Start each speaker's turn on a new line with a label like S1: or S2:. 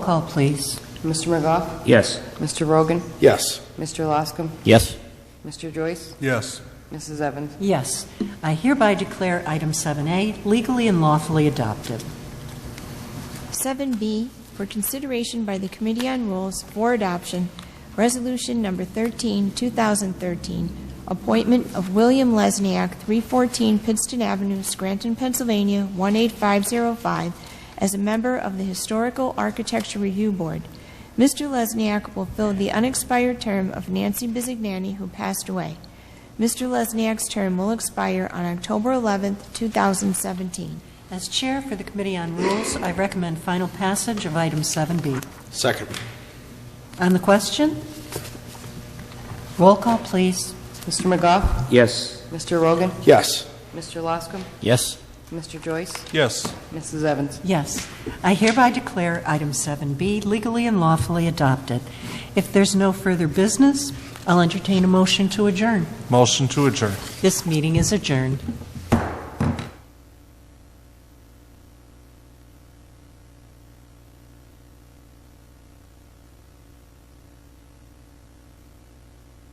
S1: Call, please.
S2: Mr. McGough?
S3: Yes.
S2: Mr. Rogan?
S4: Yes.
S2: Mr. Loscom?
S3: Yes.
S2: Mr. Joyce?
S4: Yes.
S2: Mrs. Evans?
S1: Yes. I hereby declare item 7A legally and lawfully adopted.
S5: 7B for consideration by the Committee on Rules for Adoption, Resolution Number 13, 2013, appointment of William Lesniak, 314 Pittston Avenue, Scranton, Pennsylvania, 18505, as a member of the Historical Architecture Review Board. Mr. Lesniak will fill the unexpired term of Nancy Bizignani, who passed away. Mr. Lesniak's term will expire on October 11, 2017.
S1: As Chair for the Committee on Rules, I recommend final passage of item 7B.
S4: Second.
S1: On the question? Roll call, please.
S2: Mr. McGough?
S3: Yes.
S2: Mr. Rogan?
S4: Yes.
S2: Mr. Loscom?
S3: Yes.
S2: Mr. Joyce?
S4: Yes.
S2: Mrs. Evans?
S1: Yes. I hereby declare item 7B legally and lawfully adopted. If there's no further business, I'll entertain a motion to adjourn.
S4: Motion to adjourn.
S1: This meeting is adjourned.